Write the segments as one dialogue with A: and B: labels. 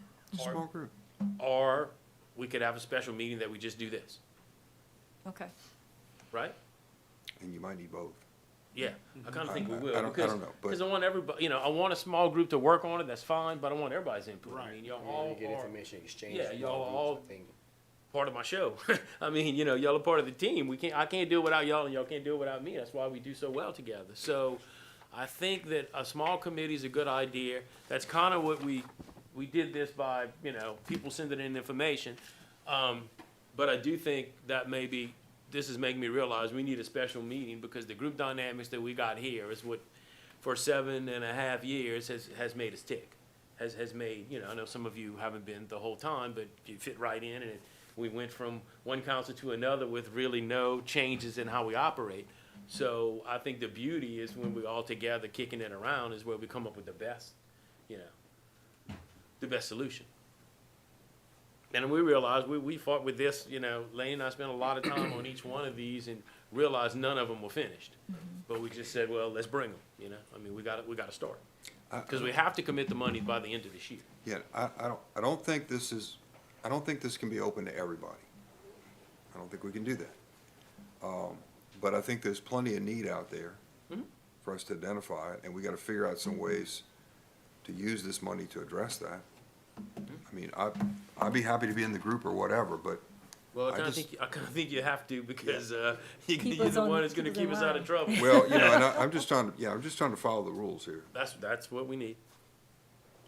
A: a
B: Or-
A: small group.
B: Or we could have a special meeting that we just do this,
C: Okay.
B: right?
A: And you might need both.
B: Yeah, I kinda
A: I-
B: think we
A: I-
B: will.
A: I don't- I
B: because-
A: don't know, but-
B: Cause I want everybody, you know, I want a small group to work on it, that's fine, but I want everybody's input. I
D: Right.
B: mean, y'all
E: Yeah,
B: all
E: you get
B: are
E: information exchange.
B: yeah,
E: from
B: y'all
E: groups,
B: all-
E: I think.
B: part of my show. I mean, you know, y'all are part of the team. We can't, I can't do it without y'all and y'all can't do it without me. That's why we do so well together. So I think that a small committee is a good idea. That's kind of what we, we did this by, you know, people sending in information. Um, but I do think that maybe, this is making me realize we need a special meeting because the group dynamics that we got here is what, for seven and a half years has, has made us tick. Has, has made, you know, I know some of you haven't been the whole time, but you fit right in and we went from one council to another with really no changes in how we operate. So I think the beauty is when we're all together kicking it around is where we come up with the best, you know, the best solution. And we realized, we, we fought with this, you know, Lane and I spent a lot of time on each one of these and realized none of them were finished. But we just said, well, let's bring them, you know, I mean, we gotta, we gotta start.
A: I-
B: Cause we have to commit the money by the end of this year.
A: Yeah, I, I don't, I don't think this is, I don't think this can be open to everybody. I don't think we can do that. Um, but I think there's plenty of need out there
B: Hmm?
A: for us to identify, and we gotta figure out some ways to use this money to address that.
B: Hmm?
A: I mean, I, I'd be happy to be in the group or whatever, but
B: Well, I
A: I
B: kinda
A: just-
B: think, I kinda think you have to because, uh, you-
C: Keep
B: you're
C: us
B: the
C: on-
B: one that's
C: keep
B: gonna
C: us in
B: keep us out of
C: line.
B: trouble.
A: Well, you know, and I, I'm just trying to, yeah, I'm just trying to follow the rules here.
B: That's, that's what we need.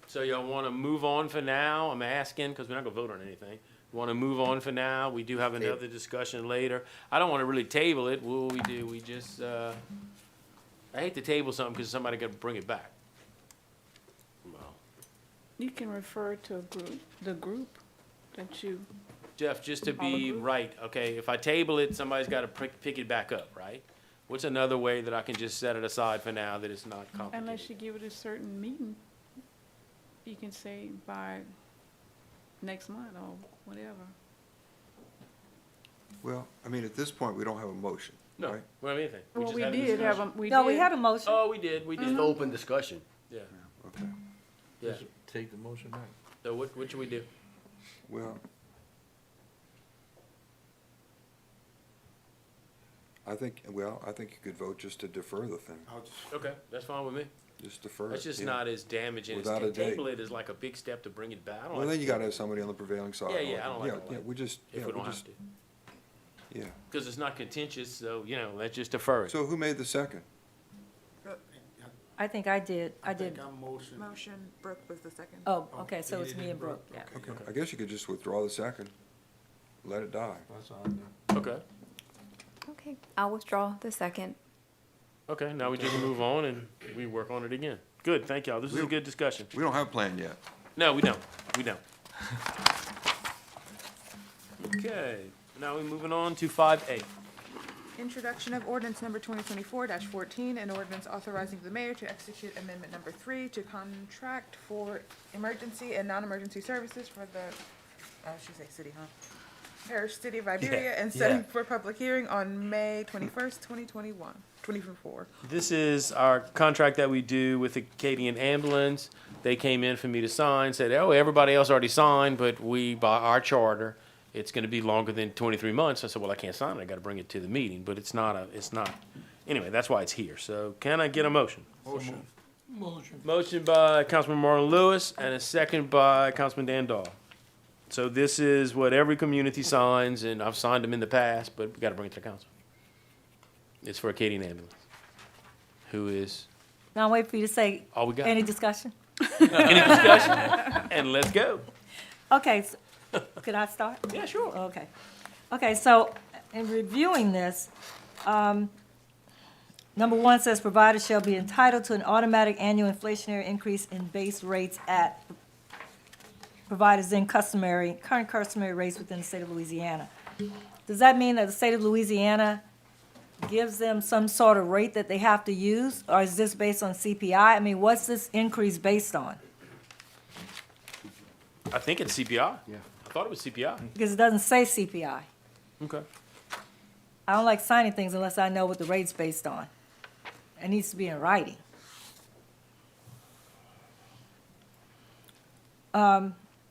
B: So y'all wanna move on for now? I'm asking, cause we're not gonna vote on anything. Wanna move on for now? We do have another discussion later. I don't wanna really table it. What will we do? We just, uh, I hate to table something, cause somebody gotta bring it back. Well,
F: You can refer to a group, the group that you,
B: Jeff, just to
F: All
B: be
F: approved?
B: right, okay, if I table it, somebody's gotta pick, pick it back up, right? What's another way that I can just set it aside for now that it's not
F: unless you
B: complicated?
F: give it a certain meeting, you can say by next month or whatever.
A: Well, I mean, at this point, we don't have a motion,
B: No,
A: right?
B: we don't have anything.
F: Well,
B: just
F: we
B: had a
F: did have
B: discussion.
F: a, Mm-hmm. we did.
C: No, we had a motion.
B: Oh, we did, we did,
E: Just open discussion.
B: yeah,
A: Okay,
B: yeah.
D: Take the motion back.
B: So what, what should we do?
A: well. I think, well, I think you could vote just to defer the thing,
B: Okay, that's fine with me.
A: just defer.
B: That's just
A: yeah.
B: not as damaging.
A: Without a
B: It's,
A: date.
B: table it is like a big step to bring it back. I don't
A: Well,
B: like
A: then
B: to
A: you gotta have somebody on the prevailing side.
B: Yeah, yeah, I don't like
A: Yeah,
B: all
A: Yeah,
B: that,
A: we just, yeah,
B: If we
A: we
B: don't have
A: just,
B: to,
A: yeah.
B: because it's not contentious, so, you know, let's just defer it.
A: So who made the second?
C: I think I did, I did.
D: I'm motion.
G: Motion, Brooke was the second.
C: Oh, okay, so it's me and Brooke, yeah.
A: Okay, I guess you could just withdraw the second, let it die.
D: That's all I do.
B: Okay,
H: Okay, I'll withdraw the second.
B: okay, now we just move on and we work on it again. Good, thank y'all. This is a
A: We'll-
B: good discussion.
A: We don't have a plan yet.
B: No, we don't, we don't. Okay, now we're moving on to five A.
G: Introduction of ordinance number twenty twenty-four fourteen, an ordinance authorizing the mayor to execute amendment number three to contract for emergency and non-emergency services for the, oh, I should say city, huh? Parish City of Iberia and setting for public hearing on May twenty-first, twenty twenty-one, twenty-four.
B: This is our contract that we do with the Acadian Ambulance. They came in for me to sign, said, oh, everybody else already signed, but we, by our charter, it's gonna be longer than twenty-three months. I said, well, I can't sign it, I gotta bring it to the meeting, but it's not a, it's not. Anyway, that's why it's here, so can I get a motion?
D: Motion. Motion.
B: Motion by Councilman Marlon Lewis and a second by Councilman Dan Dahl. So this is what every community signs, and I've signed them in the past, but we gotta bring it to the council. It's for Acadian Ambulance, who is
C: Now I'll wait for you to say,
B: all we got.
C: any discussion?
B: Any discussion? And let's go.
C: Okay, s- could I start?
B: Yeah, sure.
C: Okay. Okay, so in reviewing this, um, number one says providers shall be entitled to an automatic annual inflationary increase in base rates at providers in customary, current customary rates within the state of Louisiana. Does that mean that the state of Louisiana gives them some sort of rate that they have to use? Or is this based on CPI? I mean, what's this increase based on?
B: I think it's CPI. Yeah. I thought it was CPI.
C: Because it doesn't say CPI.
B: Okay.
C: I don't like signing things unless I know what the rate's based on. It needs to be in writing. Um,